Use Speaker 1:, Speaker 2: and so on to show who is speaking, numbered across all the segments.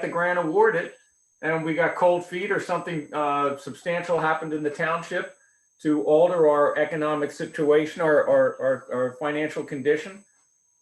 Speaker 1: the grant awarded and we got cold feet or something uh, substantial happened in the township to alter our economic situation or our, our, our financial condition,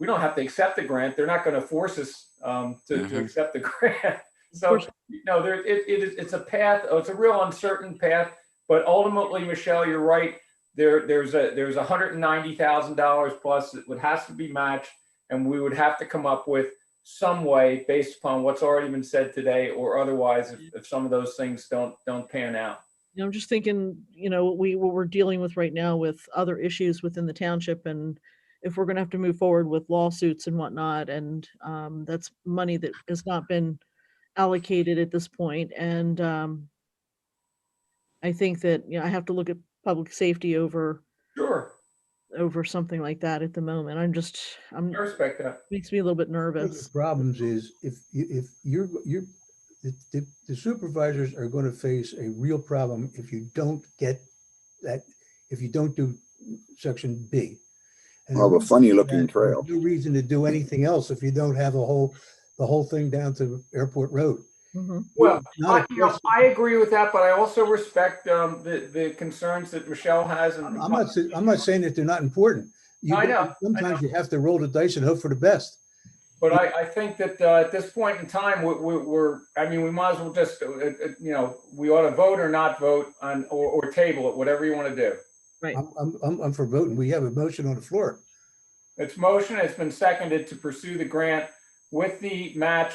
Speaker 1: we don't have to accept the grant. They're not going to force us um, to, to
Speaker 2: Mhm.
Speaker 1: accept the grant. So, you know, there, it, it is, it's a path, oh, it's a real uncertain path. But ultimately, Michelle, you're right. There, there's a, there's $190,000 plus that would, has to be matched. And we would have to come up with some way based upon what's already been said today or otherwise if, if some of those things don't don't pan out.
Speaker 3: you know, I'm just thinking, you know, what we, what we're dealing with right now with other issues within the township and if we're gonna have to move forward with lawsuits and whatnot, and, um, that's money that has not been allocated at this point, and, um, I think that, you know, I have to look at public safety over,
Speaker 1: Sure,
Speaker 3: over something like that at the moment. I'm just, I'm,
Speaker 1: I respect that.
Speaker 3: makes me a little bit
Speaker 4: One of the
Speaker 3: nervous.
Speaker 4: problems is if, you- if you're, you're, the- the the supervisors are going to face a real problem if you don't get that, if you don't do section B. And
Speaker 2: Well, a funny looking
Speaker 4: there's
Speaker 2: trail.
Speaker 4: No reason to do anything else if you don't have a whole, the whole thing down to Airport Road.
Speaker 3: Mhm.
Speaker 1: Well, I,
Speaker 4: Not a
Speaker 1: you know,
Speaker 4: question.
Speaker 1: I agree with that, but I also respect um, the the concerns that Michelle has. And
Speaker 4: I'm not, sa- I'm not saying that they're not important. You-
Speaker 1: I know, I
Speaker 4: Sometimes you have to roll the dice and hope for the best.
Speaker 1: But I, I think that uh, at this point in time, we- we- we're, I mean, we might as well just, uh, uh, you know, we ought to vote or not vote on, or, or table it, whatever you want to do.
Speaker 4: I'm, I'm- I'm, I'm for voting. We have a motion on the floor.
Speaker 1: It's motion, it's been seconded to pursue the grant with the match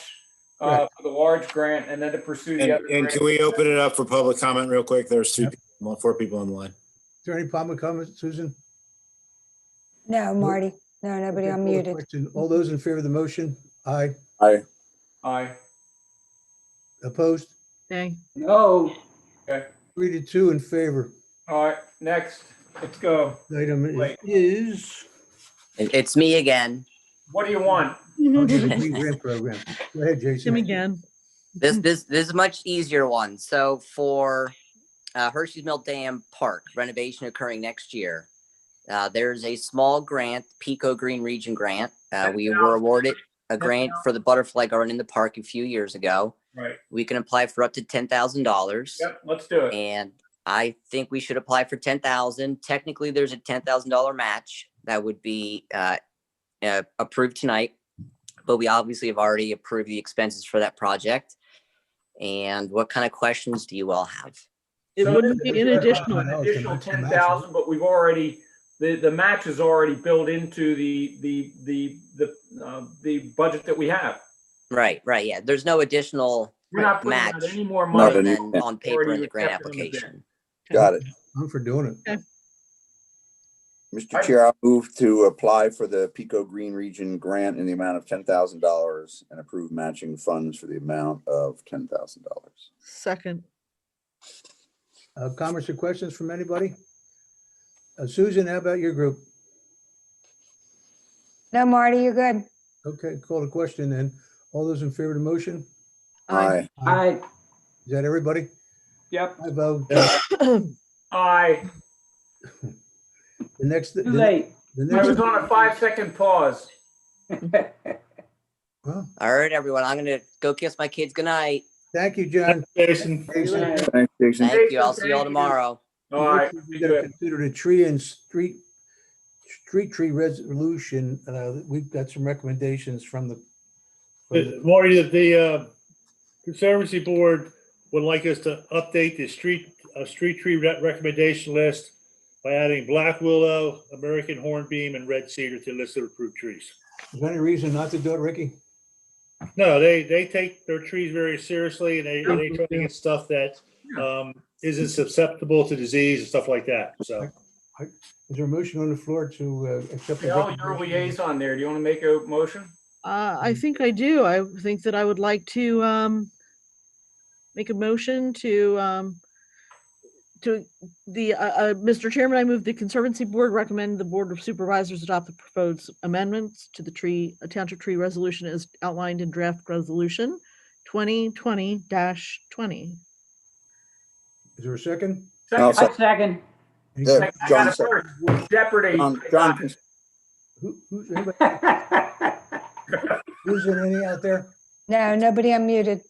Speaker 1: uh, for the large grant and then to pursue the
Speaker 5: And
Speaker 1: other.
Speaker 5: and
Speaker 1: grant.
Speaker 5: can we open it up for public comment real quick? There's two, people- four people on the line.
Speaker 4: Is there any problem with comments, Susan?
Speaker 6: No, Marty. No, nobody
Speaker 4: Okay, call the
Speaker 6: unmuted.
Speaker 4: question. All those in favor of the motion? Aye.
Speaker 1: Aye.
Speaker 4: Opposed?
Speaker 3: Okay,
Speaker 1: No.
Speaker 4: Three to two in favor.
Speaker 1: All right, next, let's go.
Speaker 4: Item
Speaker 1: Wait.
Speaker 4: is
Speaker 7: It- It's me again.
Speaker 1: What do you want?
Speaker 4: oh, the green grant program. Go ahead,
Speaker 3: Jim
Speaker 4: Jason.
Speaker 3: again.
Speaker 7: This this this is a much easier one. So for uh, Hershey's Mill Dam Park renovation occurring next year, uh, there's a small grant, Pico Green Region Grant. Uh, we were awarded a grant for the butterfly garden in the park a few years ago.
Speaker 1: Right,
Speaker 7: We can apply for up to ten thousand dollars.
Speaker 1: yep, let's do it.
Speaker 7: And I think we should apply for ten thousand. Technically, there's a ten thousand dollar match that would be uh, uh, approved tonight. But we obviously have already approved the expenses for that project. And what kind of questions do you all have?
Speaker 3: It
Speaker 1: So
Speaker 3: wouldn't
Speaker 1: there's
Speaker 3: be an
Speaker 1: a-
Speaker 3: additional,
Speaker 1: an Additional ten thousand, but we've already, the, the match is already built into the, the, the, the, uh, the budget that we have.
Speaker 7: Right, right, yeah. There's no additional
Speaker 1: We're not putting
Speaker 7: match
Speaker 1: out any more
Speaker 2: Not
Speaker 1: money.
Speaker 2: an-
Speaker 7: than on paper in the grant
Speaker 1: accepted in the bid.
Speaker 7: application.
Speaker 2: Got it.
Speaker 4: I'm for doing it.
Speaker 2: Mr. Chair, I move to apply for the Pico Green Region Grant in the amount of ten thousand dollars and approve matching funds for the amount of ten thousand dollars.
Speaker 3: second,
Speaker 4: Uh, Comments or questions from anybody? Uh, Susan, how about your group?
Speaker 6: No, Marty, you're good.
Speaker 4: Okay, call the question then. All those in favor of the motion?
Speaker 2: Aye.
Speaker 4: Aye. Is that everybody? oh.
Speaker 1: Yep,
Speaker 4: I vote.
Speaker 1: aye.
Speaker 4: The next. Too The
Speaker 1: I was
Speaker 4: next,
Speaker 1: on a five-second pause.
Speaker 4: well,
Speaker 7: All right, everyone, I'm gonna go kiss my kids goodnight.
Speaker 4: thank you, John.
Speaker 5: Jason.
Speaker 4: Jason,
Speaker 2: Thanks, Jason.
Speaker 7: Thank you. I'll see you
Speaker 1: thank
Speaker 7: all
Speaker 1: you.
Speaker 7: tomorrow.
Speaker 1: All right.
Speaker 4: We gotta Consider the tree and street, street tree resolution, uh, we've got some recommendations from the. from the-
Speaker 8: Marty, that the uh, Conservancy Board would like us to update the street, uh, street tree re- recommendation list by adding black willow, American hornbeam, and red cedar to the list of approved trees.
Speaker 4: Is there any reason not to do it, Ricky?
Speaker 8: No, they, they take their trees very seriously and they, they try to get stuff that um, isn't susceptible to disease and stuff like that, so.
Speaker 4: Is there a motion on the floor to uh, accept? the
Speaker 1: Al, you're a
Speaker 4: recommendation?
Speaker 1: liaison there. Do you want to make a motion?
Speaker 3: Uh, I
Speaker 4: Mm.
Speaker 3: think I do. I think that I would like to, um, make a motion to, um, to the, uh, uh, Mr. Chairman, I move the Conservancy Board recommend the Board of Supervisors adopt the proposed amendments to the tree, uh, Township Tree Resolution as outlined in draft resolution twenty twenty twenty.
Speaker 4: Is there a second?
Speaker 2: I'll
Speaker 1: Second,
Speaker 2: second.
Speaker 4: Any-
Speaker 2: Yeah.
Speaker 1: I got
Speaker 2: John
Speaker 1: it
Speaker 2: second.
Speaker 1: first. Jeopardy.
Speaker 2: John, John, can-
Speaker 4: Who, who's, anybody- who's in any out there?
Speaker 6: No, nobody unmuted.